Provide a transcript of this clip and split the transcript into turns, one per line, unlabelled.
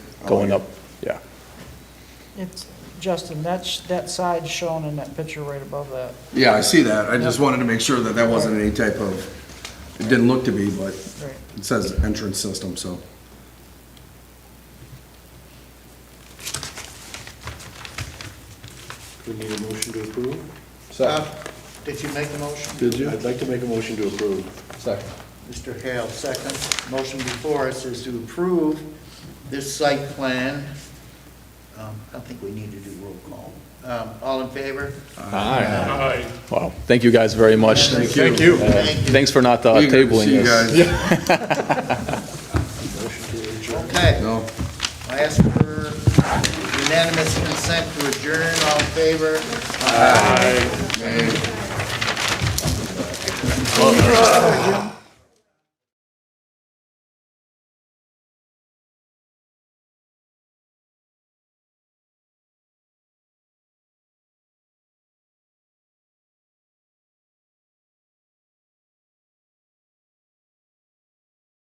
Oh,
going up, yeah.
It's, Justin, that's, that side's shown in that picture right above that.
Yeah, I see that. I just wanted to make sure that that wasn't any type of, it didn't look to be, but
Right.
it says entrance system, so.
We need a motion to approve?
Bob, did you make the motion?
Did you? I'd like to make a motion to approve.
Mr. Hale, second. Motion before us is to approve this site plan. Um, I think we need to do roll call. Um, All in favor?
Aye.
Wow, thank you guys very much.
Thank
you. Thank you.
Thank you.
Thanks for not uh,
Eager to
tabling
see you
this.
guys.
Motion to adjourn.
Okay,
No.
I ask for unanimous consent to adjourn, all in favor? Aye.